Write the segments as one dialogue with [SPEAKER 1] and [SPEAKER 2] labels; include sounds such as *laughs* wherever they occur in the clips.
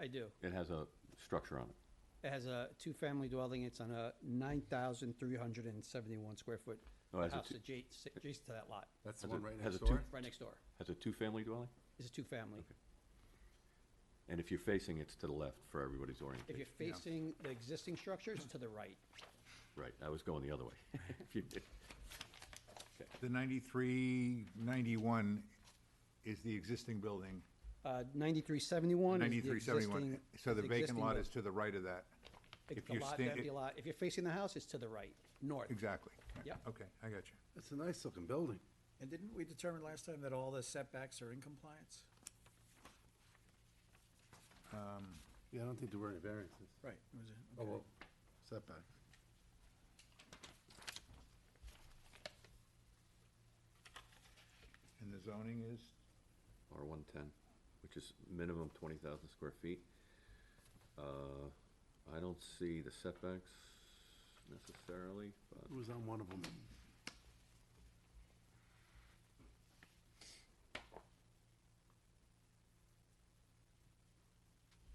[SPEAKER 1] I do.
[SPEAKER 2] It has a structure on it.
[SPEAKER 1] It has a two-family dwelling, it's on a nine thousand three hundred and seventy-one square foot
[SPEAKER 3] Oh,
[SPEAKER 2] No, it has a
[SPEAKER 1] house
[SPEAKER 2] two-
[SPEAKER 1] adjacent, adjacent to that lot,
[SPEAKER 3] That's the
[SPEAKER 2] Has
[SPEAKER 3] one
[SPEAKER 2] it-
[SPEAKER 3] right
[SPEAKER 2] has
[SPEAKER 3] next
[SPEAKER 2] it two-
[SPEAKER 3] door?
[SPEAKER 1] right next door.
[SPEAKER 2] Has a two-family dwelling?
[SPEAKER 1] It's a two-family.
[SPEAKER 2] And if you're facing, it's to the left for everybody's
[SPEAKER 1] If you're
[SPEAKER 2] orientation.
[SPEAKER 1] facing the existing structures, to the right.
[SPEAKER 2] Right, I was going the other way. *laughs* If you did-
[SPEAKER 3] The ninety-three, ninety-one is the existing building.
[SPEAKER 1] Uh, ninety-three seventy-one is the
[SPEAKER 3] Ninety-three, seventy-one.
[SPEAKER 1] existing.
[SPEAKER 3] So the vacant
[SPEAKER 1] existing
[SPEAKER 3] lot
[SPEAKER 1] buil-
[SPEAKER 3] is to the right of that.
[SPEAKER 1] If
[SPEAKER 3] if
[SPEAKER 1] the
[SPEAKER 3] you're
[SPEAKER 1] lot,
[SPEAKER 3] stand-
[SPEAKER 1] that'd be a lot. If you're facing the house, it's to the right, north.
[SPEAKER 3] Exactly. Yeah.
[SPEAKER 1] Yep.
[SPEAKER 3] Okay, I got you.
[SPEAKER 4] It's a nice looking building.
[SPEAKER 5] And didn't we determine last time that all the setbacks are in compliance?
[SPEAKER 4] Yeah, I don't think there were any variances.
[SPEAKER 5] Right. it was a-
[SPEAKER 4] Oh,
[SPEAKER 5] okay.
[SPEAKER 4] well, setback.
[SPEAKER 3] And the zoning is?
[SPEAKER 2] Or 110, which is minimum 20,000 square feet. Uh, I don't see the setbacks necessarily, but
[SPEAKER 4] It was on one of them.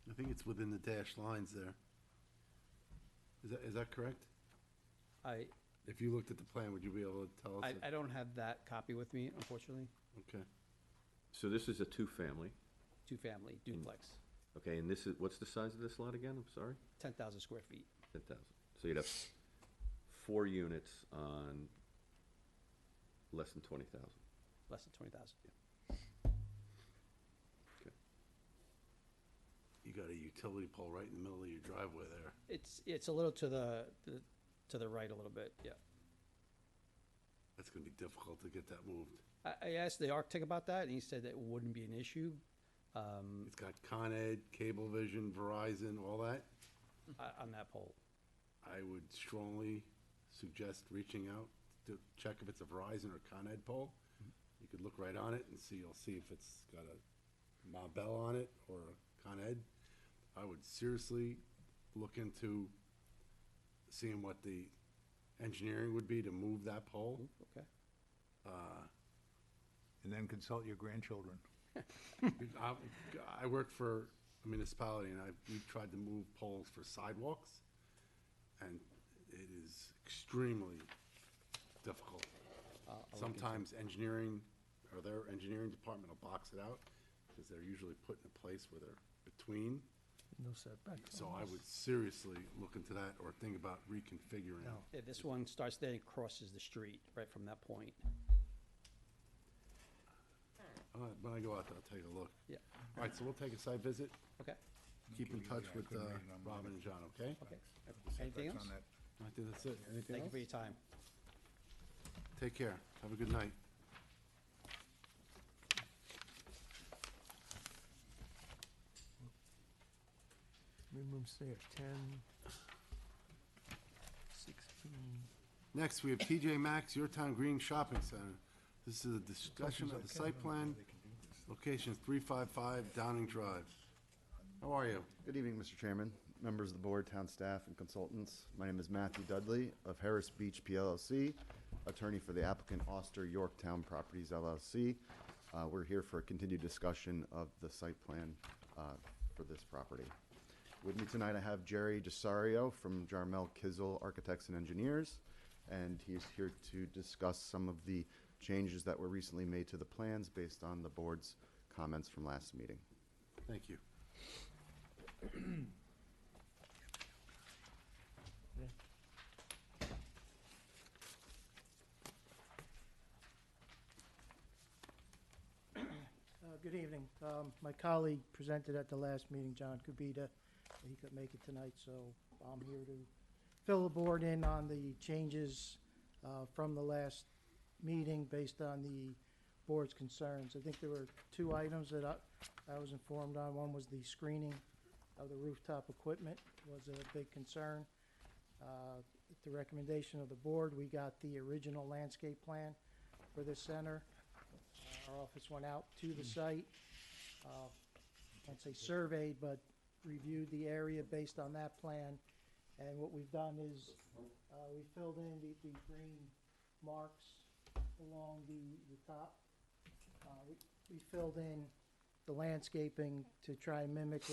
[SPEAKER 4] I think it's within the dashed lines there. Is that, is that correct?
[SPEAKER 1] I,
[SPEAKER 4] If you looked at the plan, would you be able to tell us?
[SPEAKER 1] I,
[SPEAKER 4] that?
[SPEAKER 1] I don't have that copy with me, unfortunately.
[SPEAKER 4] Okay.
[SPEAKER 2] so this is a two-family,
[SPEAKER 1] Two-family
[SPEAKER 3] Mm.
[SPEAKER 1] duplex,
[SPEAKER 2] okay, and this is, what's the size of this lot again? I'm sorry?
[SPEAKER 1] ten thousand square feet.
[SPEAKER 2] 10,000. So you'd have four units on less than 20,000.
[SPEAKER 1] less than twenty thousand.
[SPEAKER 4] You got a utility pole right in the middle of your driveway there.
[SPEAKER 1] It's, it's a little to the, the- to the right a little bit, yeah.
[SPEAKER 4] That's gonna be difficult to get that moved.
[SPEAKER 1] I, I asked the architect about that, and he said that wouldn't be an issue. Um,
[SPEAKER 4] *laughs* It's got Con Ed, Cablevision, Verizon, all that.
[SPEAKER 1] o- on that pole.
[SPEAKER 4] I would strongly suggest reaching out to check if it's a Verizon or Con Ed pole. You could look right on it and see, you'll see if it's got a Ma Bell on it or a Con Ed. I would seriously look into seeing what the engineering would be to move that pole.
[SPEAKER 1] Okay.
[SPEAKER 3] And then consult your grandchildren.
[SPEAKER 4] I, I work for a municipality and I, we tried to move poles for sidewalks and it is extremely difficult.
[SPEAKER 1] Uh,
[SPEAKER 4] Sometimes engineering, or their engineering department will box it out because they're usually put in a place where they're between.
[SPEAKER 5] No setbacks.
[SPEAKER 4] So I would seriously look into that or think about reconfiguring.
[SPEAKER 1] Yeah, this one starts there and crosses the street right from that point.
[SPEAKER 4] All right, When I go out there, I'll take a look.
[SPEAKER 1] Yeah,
[SPEAKER 4] All right, so we'll take a site visit.
[SPEAKER 1] okay,
[SPEAKER 4] Keep in
[SPEAKER 3] Give you-
[SPEAKER 4] touch
[SPEAKER 3] yeah, I
[SPEAKER 4] with
[SPEAKER 3] couldn't
[SPEAKER 4] uh,
[SPEAKER 3] read it on mine.
[SPEAKER 4] Robin and John, okay?
[SPEAKER 1] okay. Anything
[SPEAKER 3] That's
[SPEAKER 1] else?
[SPEAKER 3] on that.
[SPEAKER 4] I think that's it. Anything
[SPEAKER 1] Thank you
[SPEAKER 4] else?
[SPEAKER 1] for your time.
[SPEAKER 4] Take care. Have a good night.
[SPEAKER 6] Minimum stay of ten, sixteen.
[SPEAKER 4] Next, we have TJ Maxx, Your Town Green Shopping Center. This is a discussion of the site plan, location three five five Downing Drive. How are you?
[SPEAKER 7] Good evening, Mr. Chairman, members of the board, town staff, and consultants. My name is Matthew Dudley of Harris Beach PLLC, attorney for the applicant Auster Yorktown Properties LLC. Uh, We're here for a continued discussion of the site plan uh, for this property. With me tonight, I have Jerry Desario from Jarmel Kizel Architects and Engineers, and he's here to discuss some of the changes that were recently made to the plans based on the board's comments from last meeting.
[SPEAKER 4] Thank you.
[SPEAKER 8] Uh, Good evening. Um, My colleague presented at the last meeting, John Kubita. He could make it tonight, so I'm here to fill the board in on the changes uh, from the last meeting based on the board's concerns. I think there were two items that I I was informed on. One was the screening of the rooftop equipment was a big concern. Uh, At the recommendation of the board, we got the original landscape plan for this center. Our office went out to the site, uh, I won't say surveyed, but reviewed the area based on that plan. And what we've done is, uh, we filled in the, the green marks along the, the top. Uh, we- we filled in the landscaping to try and mimic